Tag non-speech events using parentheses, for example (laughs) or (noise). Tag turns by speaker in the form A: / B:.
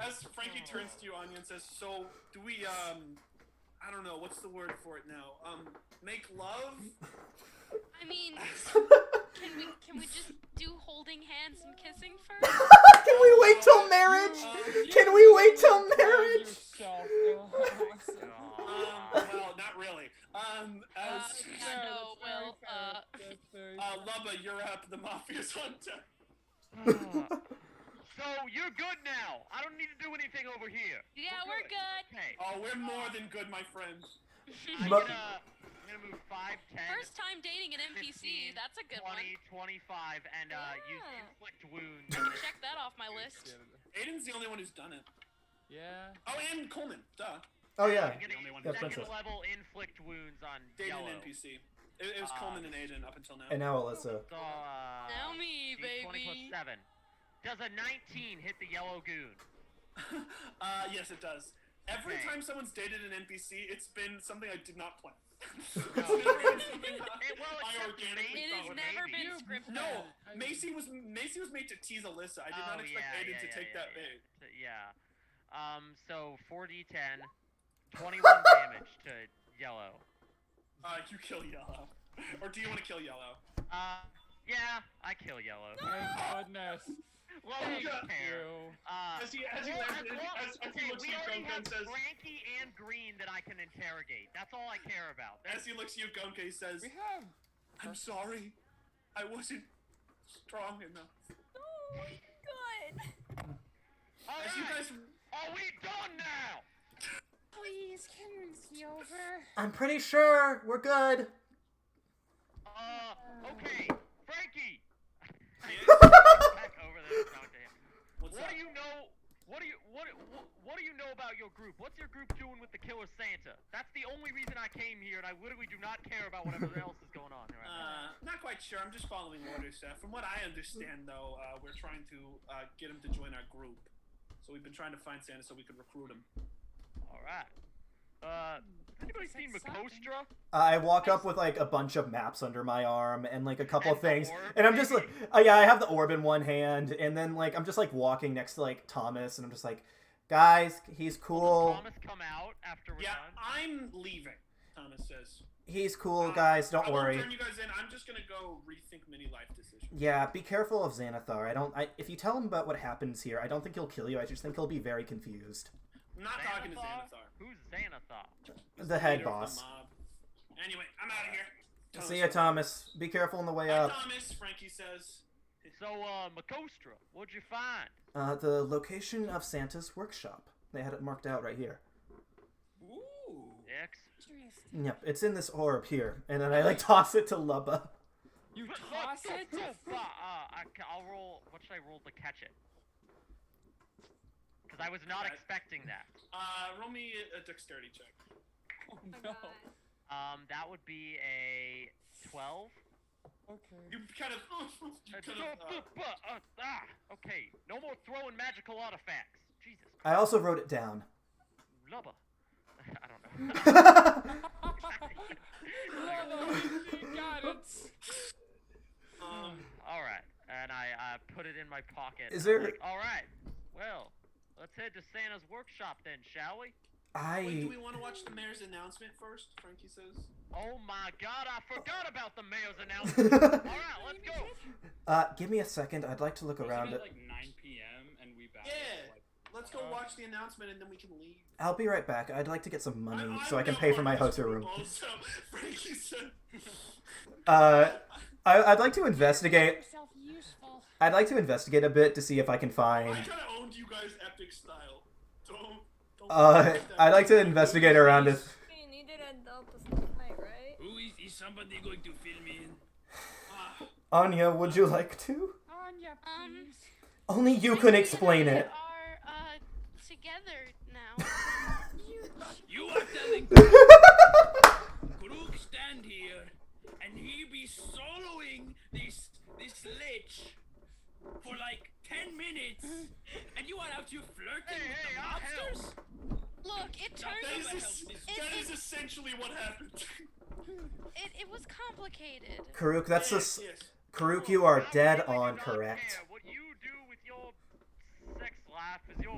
A: as Frankie turns to you, Anya, and says, "So, do we? Um, I don't know. What's the word for it now? Um, make love?
B: I mean, can we can we just do holding hands and kissing
C: (laughs)
B: first?
C: Can we wait till marriage?
A: Um,
C: Can we wait till marriage?
D: Yourself.
A: Um, well, not really. Um,
B: Uh,
A: as
B: yeah, no, well, uh,
A: uh, Lubba, you're up. The mafia's (laughs) on deck.
E: So you're good now. I don't need to do anything over here.
B: yeah, we're good.
A: (laughs)
E: Okay.
A: Oh, we're more than good, my friend.
E: I'm
C: But-
E: gonna, I'm gonna move 5, 10,
B: First time dating an
E: 15,
B: NPC. That's a good one.
E: 20, 25, and uh, use
B: Yeah.
E: inflict wounds.
B: I can check that off my list.
A: Aiden's the only one who's done it.
D: Yeah.
A: Oh, and Coleman. Duh.
C: Oh
E: I'm
C: yeah.
E: gonna use
C: Yeah,
E: second
C: princess.
E: level inflict wounds on
A: Dated
E: yellow.
A: an NPC. It, it was
E: Uh,
A: Coleman and Aiden up until now. (laughs)
C: And now
E: So,
C: Alyssa.
E: uh,
B: Now me,
E: D20 plus 7.
B: baby.
E: Does a 19 hit the yellow goon?
A: uh, yes, it does. Every
E: Okay.
A: time someone's dated an NPC, it's been something I did not plan. (laughs) It's
E: No.
A: never been something
E: It- well,
A: I
E: except
A: organically
B: It
E: Macy.
B: has
A: thought of.
B: never
E: Maybe.
B: been scripted.
A: No, Macy was Macy was made to tease Alyssa. I did not
E: Oh,
A: expect
E: yeah,
A: Aiden
E: yeah,
A: to
E: yeah,
A: take
E: yeah,
A: that bait.
E: yeah. T- Yeah. Um, so 4d10, 21 damage to yellow.
A: Uh, you kill Yellow, or do you want to kill Yellow?
E: Uh, yeah, I kill yellow.
D: Thank goodness.
E: Well,
A: Thank
E: we don't
A: you.
E: care.
D: You.
E: Uh,
A: As he as he
E: well,
A: lands,
E: as long-
A: as, as he
E: okay,
A: looks
E: we
A: at you,
E: already have
A: Gunka says,
E: Frankie and Green that I can interrogate. That's all I care about.
A: as he looks at you, Gunka, he says,
D: We have.
A: "I'm sorry, I wasn't strong enough."
F: Oh, good.
E: all
A: As you
E: right, (laughs)
A: guys
E: are we done now?
G: Please, can this be over?
C: I'm pretty sure we're good.
E: Uh, okay, Frankie. Back over there and talk to him.
A: What's
E: What
A: up?
E: do you know? What do you what, what what do you know about your group? What's your group doing with the killer Santa? That's the only reason I came here, and I literally do not care about
A: (laughs)
E: whatever else is going on here. right now.
A: Uh, not quite sure. I'm just following orders. Uh, from what I understand, though, uh, we're trying to uh, get him to join our group. So we've been trying to find Santa so we could recruit him.
E: All right. Uh, has anybody seen
G: That's something.
E: Makostra?
C: I walk up with like a bunch of maps under my arm and like a couple
E: And
C: of
E: the
C: things,
E: orb,
C: and I'm just like,
E: maybe?
C: oh, yeah, I have the orb in one hand, and then like I'm just like walking next to like Thomas, and I'm just like, guys, he's
E: Will
C: cool,
E: Thomas come out after we're
A: yeah, I'm
E: done?
A: leaving. Thomas says.
C: he's cool,
A: Uh,
C: guys,
A: I
C: don't
A: won't
C: worry.
A: Turn you guys in. I'm just gonna go rethink many life decisions.
C: Yeah, be careful of Xanathar. I don't. I, if you tell him about what happens here, I don't think he'll kill you. I just think he'll be very confused.
A: I'm not talking to
E: Xanathar?
A: Xanathar.
E: Who's Xanathar?
A: He's
C: The head
A: leader of
C: boss.
A: mob. Anyway, I'm out of here. Thomas
C: See ya,
A: says.
C: Thomas. Be careful on the way
A: Bye,
C: up.
A: Thomas. Frankie says.
E: So, uh, Makostra, what'd you find?
C: Uh, the location of Santa's workshop. They had it marked out right here.
A: Ooh.
E: X.
G: Interesting.
C: Yep, it's in this orb here, and then I like (laughs) toss it to Lubba.
D: You
E: But
D: toss
E: look,
D: it.
E: look, (laughs) look, uh, uh, I, ca- I'll roll. What should I roll to catch it? Because I was not
A: That-
E: expecting that.
A: Uh, roll me a, a dexterity check.
D: Oh,
G: Oh,
D: no.
G: God.
E: Um, that would be a twelve.
D: Okay. (laughs)
A: You kind of. (laughs) you
E: Uh,
A: kind
E: so-
A: of, uh,
E: bu- bu- uh, ah, (laughs) okay, no more throwing magical artifacts. Jesus,
C: I also wrote it down. (laughs)
E: lubba. (laughs) I don't know. (laughs)
D: You got it.
A: um,
E: All right, and I uh, put it in my pocket.
C: Is
E: and I'm
C: there-
E: like, All right, well, let's head to Santa's workshop then, shall we?
A: Wait,
C: I (laughs)
A: do we want to watch the mayor's announcement first? Frankie says.
E: Oh my God, I forgot about the mayor's announcement.
C: (laughs)
E: All right, let's go.
C: uh, give me a second. I'd like to look around.
H: Wasn't it like 9 p.m. and we battled.
A: Yeah.
H: at, Like,
A: Let's go watch the announcement and then we can leave.
C: I'll be right back. I'd like to get some money
A: I'm-
C: so I
A: I'm
C: can
A: not
C: pay for my
A: part of this
C: hotel
A: group
C: room.
A: Also, (laughs) Frankie said.
C: Uh, I, I'd like to investigate.
G: Yourself useful.
C: I'd like to investigate a bit to see if I can
A: I
C: find.
A: kind of owned you guys epic style. Don't. don't
C: Uh, I'd like to investigate around if.
F: We needed an adult to stop night, right?
H: Who is, is somebody going to fill me in?
A: Ah,
C: Anya, would you like to?
D: Anya,
B: Um,
D: please.
C: Only you can explain
B: We
C: it. (laughs)
B: Are uh together now?
H: You are telling Grook stand here, and he be soloing this this lich for like ten minutes, and you are out here flirting
E: Hey, hey, I'll
H: with the
E: help.
H: monsters.
B: Look,
A: that
B: it turned.
A: is, es- that is essentially what happened.
B: It it was complicated.
C: Karuk, that's a.
A: yes,
C: s-
A: yes.
C: Karuk, you are
E: I
C: dead
E: really do
C: on
E: not
C: correct.
E: care. What you do with your sex life is your